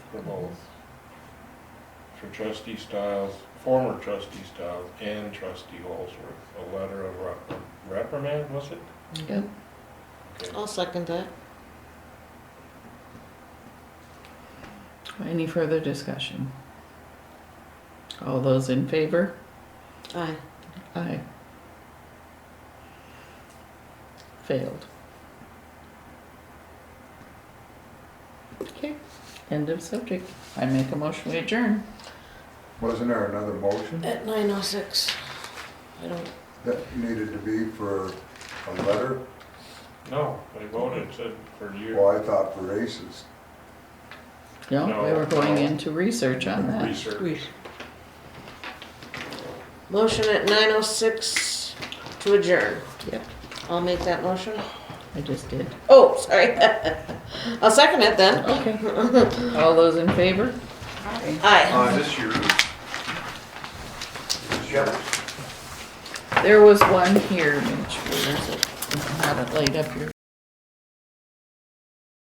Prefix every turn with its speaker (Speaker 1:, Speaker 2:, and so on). Speaker 1: for both. For trustee Stiles, former trustee Stiles and trustee Holsworth, a letter of rep- reprimand, was it?
Speaker 2: Yep.
Speaker 1: Okay.
Speaker 3: I'll second that.
Speaker 2: Any further discussion? All those in favor?
Speaker 3: Aye.
Speaker 2: Aye. Failed. Okay, end of subject. I make a motion we adjourn.
Speaker 4: Wasn't there another motion
Speaker 3: At nine oh six. I don't,
Speaker 4: that needed to be for a letter?
Speaker 1: No, they voted, said for you,
Speaker 4: Well, I thought for aces.
Speaker 2: No, we were
Speaker 1: No,
Speaker 2: going
Speaker 1: no.
Speaker 2: into research on that.
Speaker 1: research.
Speaker 3: motion at nine oh six to adjourn.
Speaker 2: Yep,
Speaker 3: I'll make that motion.
Speaker 2: I just did.
Speaker 3: Oh, sorry. I'll second it then.
Speaker 2: Okay. All those in favor?
Speaker 3: Aye.
Speaker 4: this year.
Speaker 2: There was one here, Mitch. Where is it? Had it laid up here.